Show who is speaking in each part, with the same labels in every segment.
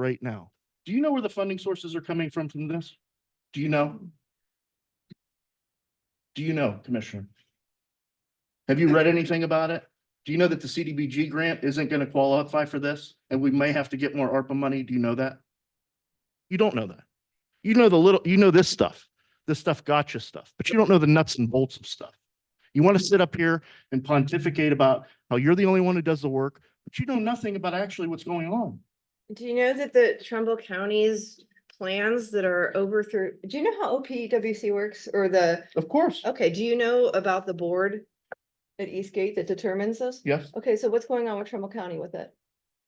Speaker 1: right now. Do you know where the funding sources are coming from from this? Do you know? Do you know, Commissioner? Have you read anything about it? Do you know that the CDBG grant isn't going to qualify for this and we may have to get more ARPA money? Do you know that? You don't know that. You know the little, you know this stuff, this stuff gotcha stuff, but you don't know the nuts and bolts of stuff. You want to sit up here and pontificate about how you're the only one who does the work, but you know nothing about actually what's going on.
Speaker 2: Do you know that the Trumbull County's plans that are over through, do you know how OPWC works or the,
Speaker 1: Of course.
Speaker 2: okay, do you know about the board at Eastgate that determines this?
Speaker 1: Yes.
Speaker 2: Okay, so what's going on with Trumbull County with it?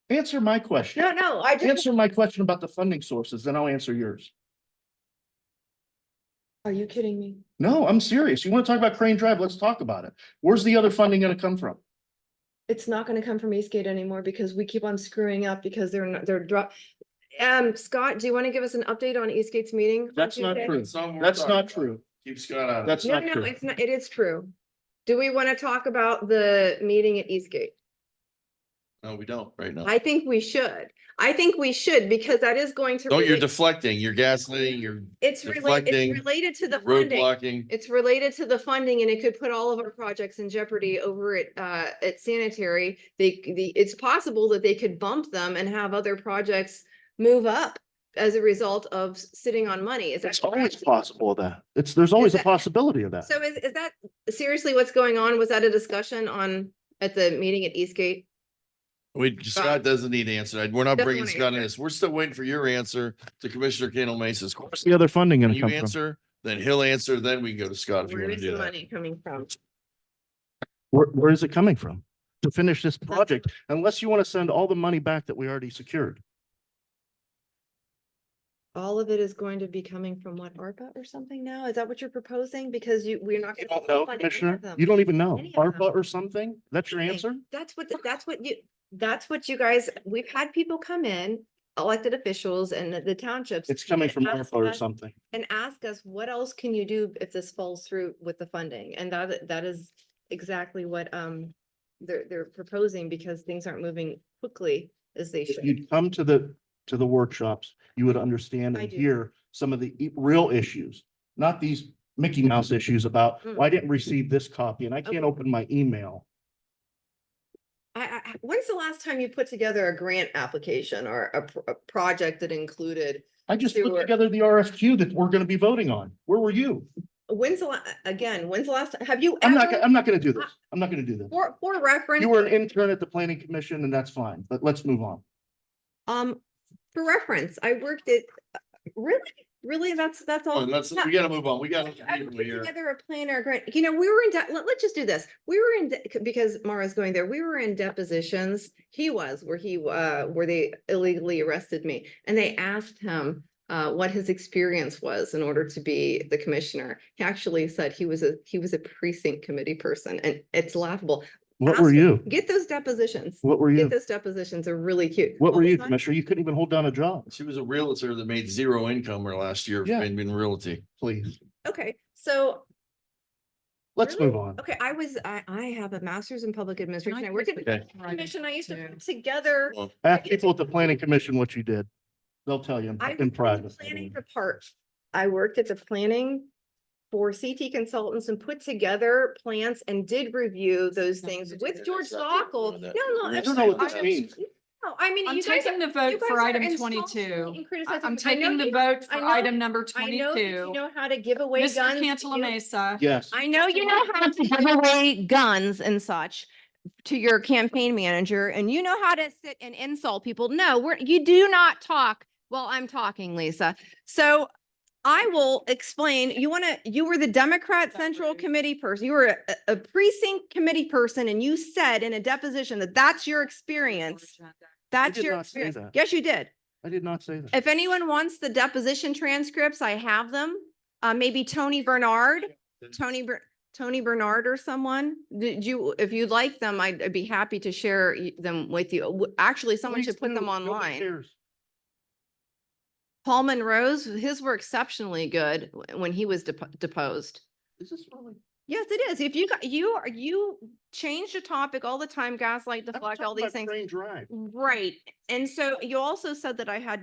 Speaker 1: Answer my question.
Speaker 2: No, no, I just,
Speaker 1: Answer my question about the funding sources, then I'll answer yours.
Speaker 2: are you kidding me?
Speaker 1: No, I'm serious. You want to talk about Crane Drive? Let's talk about it. Where's the other funding going to come from?
Speaker 2: It's not gonna come from Eastgate anymore because we keep on screwing up because they're not, they're drop. Um, Scott, do you want to give us an update on Eastgate's meeting? on
Speaker 1: That's not
Speaker 2: Tuesday?
Speaker 1: true.
Speaker 3: Some we're
Speaker 1: That's
Speaker 3: talking
Speaker 1: not
Speaker 3: about.
Speaker 1: true.
Speaker 3: Keep Scott out. of it.
Speaker 1: That's
Speaker 2: No,
Speaker 1: not
Speaker 2: no,
Speaker 1: true.
Speaker 2: it's not, it is true. Do we want to talk about the meeting at Eastgate?
Speaker 3: No, we don't right now.
Speaker 2: I think we should. I think we should because that is going to.
Speaker 3: No, you're
Speaker 2: relate-
Speaker 3: deflecting, you're gaslighting, you're
Speaker 2: It's related,
Speaker 3: deflecting,
Speaker 2: it's related to the funding.
Speaker 3: roadblocking.
Speaker 2: It's related to the funding and it could put all of our projects in jeopardy over at, uh, at sanitary. They, the, it's possible that they could bump them and have other projects move up as a result of s- sitting on money. Is that
Speaker 1: It's always
Speaker 2: correct?
Speaker 1: possible that. It's, there's always a
Speaker 2: that-
Speaker 1: possibility of that.
Speaker 2: So is, is that seriously what's going on? Was that a discussion on, at the meeting at Eastgate?
Speaker 3: We, Scott doesn't need to answer. We're not
Speaker 2: Doesn't
Speaker 3: bringing
Speaker 2: want to
Speaker 3: Scott in this. We're still waiting for your answer to Commissioner Kendall Mesa's
Speaker 1: Where's
Speaker 3: question.
Speaker 1: the other funding
Speaker 3: When
Speaker 1: going to
Speaker 3: you
Speaker 1: come from?
Speaker 3: answer, then he'll answer, then we can go to Scott if you
Speaker 2: Where
Speaker 3: want to
Speaker 2: is
Speaker 3: do
Speaker 2: the
Speaker 3: that.
Speaker 2: money coming from?
Speaker 1: Where, where is it coming from? To finish this project, unless you want to send all the money back that we already secured.
Speaker 2: all of it is going to be coming from what, ARPA or something now? Is that what you're proposing? Because you, we're not.
Speaker 1: You
Speaker 2: gonna
Speaker 1: don't know,
Speaker 2: fund any of
Speaker 1: Commissioner?
Speaker 2: them.
Speaker 1: You don't even know.
Speaker 2: Any of them.
Speaker 1: ARPA or something? That's your
Speaker 2: Nothing.
Speaker 1: answer?
Speaker 2: That's what, that's what you, that's what you guys, we've had people come in, elected officials and the- the townships
Speaker 1: It's coming from
Speaker 2: Ask
Speaker 1: ARPA or
Speaker 2: us.
Speaker 1: something.
Speaker 2: and ask us, what else can you do if this falls through with the funding? And that, that is exactly what, um, they're, they're proposing because things aren't moving quickly as they
Speaker 1: If
Speaker 2: should.
Speaker 1: you'd come to the, to the workshops, you would understand
Speaker 2: I
Speaker 1: and
Speaker 2: do.
Speaker 1: hear some of the e- real issues, not these Mickey Mouse issues about, well, I didn't receive this copy and I
Speaker 2: Mm-hmm. Mm. Okay.
Speaker 1: can't open my email.
Speaker 2: I, I, I- when's the last time you put together a grant application or a, pr- a project that included
Speaker 1: I just put
Speaker 2: Sure.
Speaker 1: together the RFQ that we're going to be voting on. Where were you?
Speaker 2: When's the, la- again, when's the last, have you?
Speaker 1: I'm not,
Speaker 2: ever-
Speaker 1: go- I'm not going to do this. I'm not going to do this.
Speaker 2: For, for reference.
Speaker 1: You were an intern at the planning commission and that's fine, but let's move on.
Speaker 2: Um, for reference, I worked at, uh, really, really, that's, that's
Speaker 3: Come
Speaker 2: all.
Speaker 3: on, Let's,
Speaker 2: No,
Speaker 3: we gotta move on. We gotta.
Speaker 2: I put
Speaker 3: here.
Speaker 2: Together a plan or a grant, you know, we were in, de- let, let's just do this. We were in, de- because Mara's going there, we were in depositions. He was, where he, uh, where they illegally arrested me. And they asked him, uh, what his experience was in order to be the commissioner. He actually said he was a, he was a precinct committee person and it's laughable.
Speaker 1: What were
Speaker 2: Ask-
Speaker 1: you?
Speaker 2: Get those depositions.
Speaker 1: What were
Speaker 2: Get
Speaker 1: you?
Speaker 2: those depositions are really cute.
Speaker 1: What
Speaker 2: All
Speaker 1: were
Speaker 2: the
Speaker 1: you,
Speaker 2: time-
Speaker 1: Commissioner? You couldn't even hold down a job,
Speaker 3: She was a realtor that made zero income her last year
Speaker 1: Yeah.
Speaker 3: in, in realty.
Speaker 1: please.
Speaker 2: Okay, so,
Speaker 1: Let's
Speaker 2: Really?
Speaker 1: move on.
Speaker 2: okay, I was, I, I have a master's in public
Speaker 4: Can I
Speaker 2: administration. I
Speaker 4: just
Speaker 2: work at
Speaker 4: make
Speaker 3: Okay.
Speaker 4: a
Speaker 2: the
Speaker 4: comment?
Speaker 2: commission. I used to
Speaker 4: Yeah.
Speaker 2: put together.
Speaker 3: Well,
Speaker 1: Ask people at the planning commission what you did. They'll tell you in- in
Speaker 2: I worked at the
Speaker 1: private.
Speaker 2: planning depart. I worked at the planning for CT consultants and put together plans and did review those
Speaker 4: Nothing
Speaker 2: things
Speaker 4: to do
Speaker 2: with
Speaker 3: with
Speaker 2: George
Speaker 3: that. Nothing to do
Speaker 2: Zockel.
Speaker 3: with
Speaker 2: No,
Speaker 3: that.
Speaker 2: no.
Speaker 3: I
Speaker 1: I
Speaker 3: don't
Speaker 1: don't
Speaker 2: I'm
Speaker 1: know what
Speaker 2: sorry.
Speaker 1: this
Speaker 2: I-
Speaker 1: means.
Speaker 2: No, I mean,
Speaker 4: I'm
Speaker 2: you guys.
Speaker 4: taking the
Speaker 2: you
Speaker 4: vote for
Speaker 2: guys are
Speaker 4: item
Speaker 2: insulting me
Speaker 4: twenty-two.
Speaker 2: and criticizing
Speaker 4: I- I'm
Speaker 2: me. I know
Speaker 4: taking the
Speaker 2: you- I
Speaker 4: vote for
Speaker 2: know-
Speaker 4: item number
Speaker 2: I know that you
Speaker 4: twenty-two.
Speaker 2: know how to give away guns. you
Speaker 4: Mr. Cantala
Speaker 2: know-
Speaker 4: Mesa,
Speaker 1: Yes.
Speaker 2: I know you know how to give away guns and such to your campaign manager and you know how to sit and insult people. No, we're, you do not talk while I'm talking, Lisa. So I will explain, you want to, you were the Democrat
Speaker 4: That
Speaker 2: Central
Speaker 4: rude?
Speaker 2: Committee person, you were a- a precinct committee person and you said in a deposition that that's your experience. That's
Speaker 1: did
Speaker 2: your
Speaker 1: not say
Speaker 2: experience.
Speaker 1: that.
Speaker 2: Yes, you did.
Speaker 1: I did not say that.
Speaker 2: If anyone wants the deposition transcripts, I have them. Uh, maybe Tony Bernard, Tony, Ber- Tony Bernard or someone. Did you, if you'd like them, I'd I'd be happy to share y- them with you. W- Actually, someone
Speaker 1: Please
Speaker 2: should put
Speaker 1: do.
Speaker 2: them
Speaker 1: Nobody
Speaker 2: online.
Speaker 1: cares.
Speaker 2: Paul Monroe's, his were exceptionally good w- when he was depo- deposed.
Speaker 1: Is this really?
Speaker 2: Yes, it is. If you, got- you are, you change the topic all the time, gaslight,
Speaker 1: I'm
Speaker 2: deflect, all
Speaker 1: talking about
Speaker 2: these things.
Speaker 1: Crane Drive.
Speaker 2: Right. And so you also said that I had